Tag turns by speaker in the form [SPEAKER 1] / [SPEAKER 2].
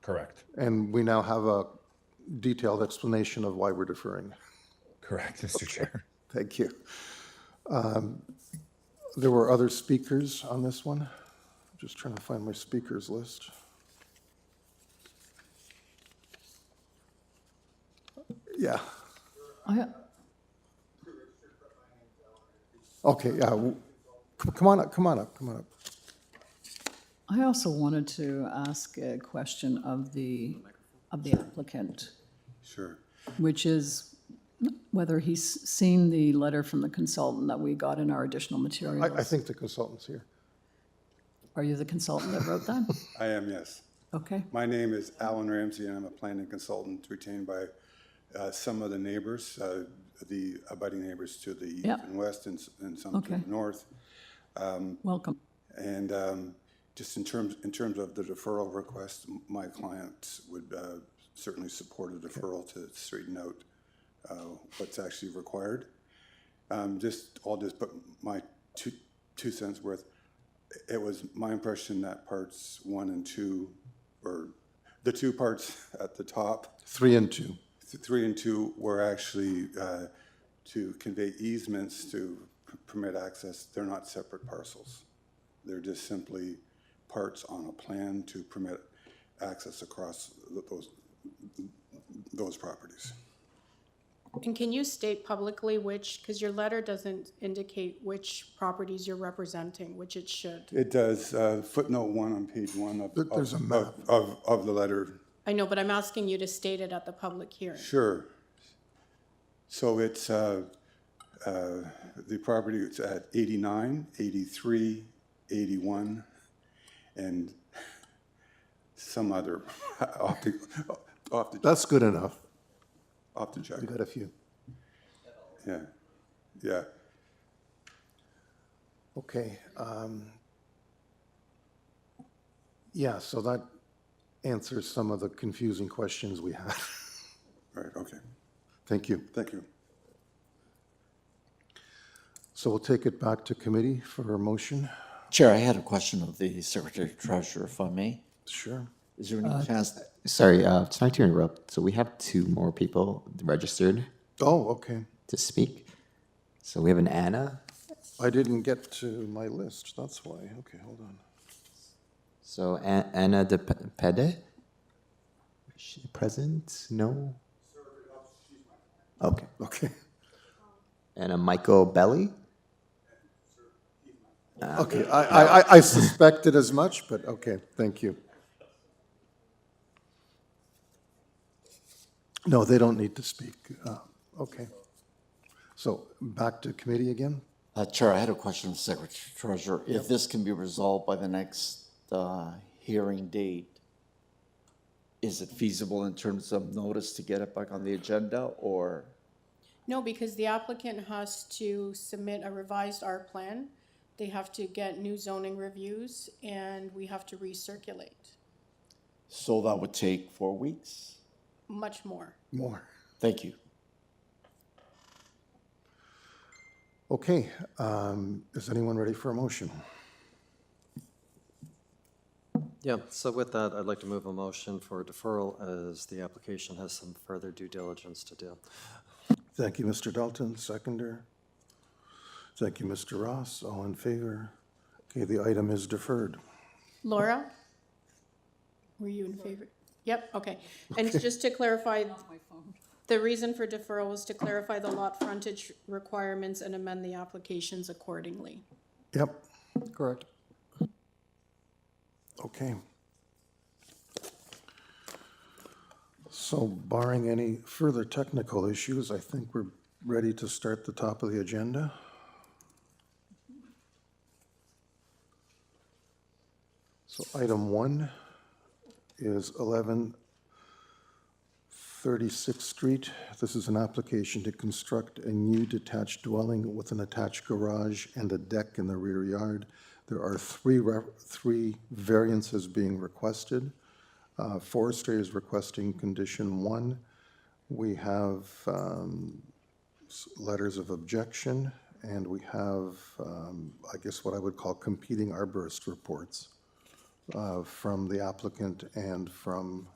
[SPEAKER 1] Correct,
[SPEAKER 2] And we now have a detailed explanation of why we're deferring.
[SPEAKER 1] correct, Mr. Chair.
[SPEAKER 2] Thank you. Um, There were other speakers on this one. Just trying to find my speakers list. Yeah,
[SPEAKER 3] I,
[SPEAKER 2] okay, yeah. w- c- Come on up, come on up, come on up.
[SPEAKER 3] I also wanted to ask a question of the, of the applicant,
[SPEAKER 4] Sure.
[SPEAKER 3] which is whether he's seen the letter from the consultant that we got in our additional
[SPEAKER 2] I, I
[SPEAKER 3] materials.
[SPEAKER 2] think the consultant's here.
[SPEAKER 3] Are you the consultant that wrote that?
[SPEAKER 4] I am, yes.
[SPEAKER 3] Okay,
[SPEAKER 4] My name is Alan Ramsey, and I'm a planning consultant retained by uh, some of the neighbors, uh, the abutting neighbors to the east
[SPEAKER 3] Yeah.
[SPEAKER 4] and west and s- and some to
[SPEAKER 3] Okay.
[SPEAKER 4] the north.
[SPEAKER 3] welcome.
[SPEAKER 4] And um, just in terms, in terms of the deferral request, m- my clients would uh, certainly support a deferral to straighten out uh, what's actually required. Um, Just, I'll just put my two, two cents worth. It was my impression that parts one and two, or the two parts at the top,
[SPEAKER 2] Three and two.
[SPEAKER 4] th- three and two were actually uh, to convey easements to p- permit access. They're not separate parcels. They're just simply parts on a plan to permit access across th- those, those properties.
[SPEAKER 5] And can you state publicly which, because your letter doesn't indicate which properties you're representing, which it should.
[SPEAKER 4] It does uh, footnote one on page one of.
[SPEAKER 2] There- there's a
[SPEAKER 4] of-
[SPEAKER 2] map.
[SPEAKER 4] Of, of the letter.
[SPEAKER 5] I know, but I'm asking you to state it at the public hearing.
[SPEAKER 4] Sure. So it's, uh, uh, the property is at 89, 83, 81, and some other, off the, off the,
[SPEAKER 2] That's good enough.
[SPEAKER 4] off the check,
[SPEAKER 2] We got a few.
[SPEAKER 4] yeah, yeah.
[SPEAKER 2] Okay. um, Yeah, so that answers some of the confusing questions we had.
[SPEAKER 4] Right, okay,
[SPEAKER 2] Thank you.
[SPEAKER 4] thank you.
[SPEAKER 2] So we'll take it back to committee for a motion.
[SPEAKER 6] Chair, I had a question of the Secretary Treasurer, if I may.
[SPEAKER 2] Sure.
[SPEAKER 6] Is there any chance,
[SPEAKER 7] Sorry, uh, it's not to interrupt. So we have two more people registered
[SPEAKER 2] Oh, okay.
[SPEAKER 7] to speak. So we have an Anna.
[SPEAKER 2] I didn't get to my list, that's why. Okay, hold on.
[SPEAKER 7] So A- Anna de P- Pede. Is she present? No. Okay.
[SPEAKER 2] Okay.
[SPEAKER 7] And a Michael Belly.
[SPEAKER 2] Okay, I, I- I, I suspected as much, but okay, thank you. No, they don't need to speak. Uh, Okay. So back to committee again?
[SPEAKER 6] uh, Chair, I had a question of Secretary Treasurer, if this can be resolved by the next, uh, hearing date, is it feasible in terms of notice to get it back on the agenda, or?
[SPEAKER 5] No, because the applicant has to submit a revised art plan. They have to get new zoning reviews and we have to recirculate
[SPEAKER 6] So that would take four weeks?
[SPEAKER 5] much more.
[SPEAKER 2] More.
[SPEAKER 6] Thank you.
[SPEAKER 2] Okay, um, is anyone ready for a motion?
[SPEAKER 8] Yeah, so with that, I'd like to move a motion for deferral as the application has some further due diligence to do.
[SPEAKER 2] Thank you, Mr. Dalton, seconder. Thank you, Mr. Ross, all in favor. Okay, the item is deferred.
[SPEAKER 5] Laura? Were you in favor? Yep, okay. And just to clarify, the reason for deferral was to clarify the lot frontage requirements and amend the applications accordingly.
[SPEAKER 2] Yep,
[SPEAKER 8] Correct.
[SPEAKER 2] okay. So barring any further technical issues, I think we're ready to start the top of the agenda. So item one is eleven 36th Street. This is an application to construct a new detached dwelling with an attached garage and a deck in the rear yard. There are three, re- three variances being requested. Uh, Forestry is requesting condition one. We have um, s- letters of objection, and we have, um, I guess, what I would call competing arborist reports uh, from the applicant and from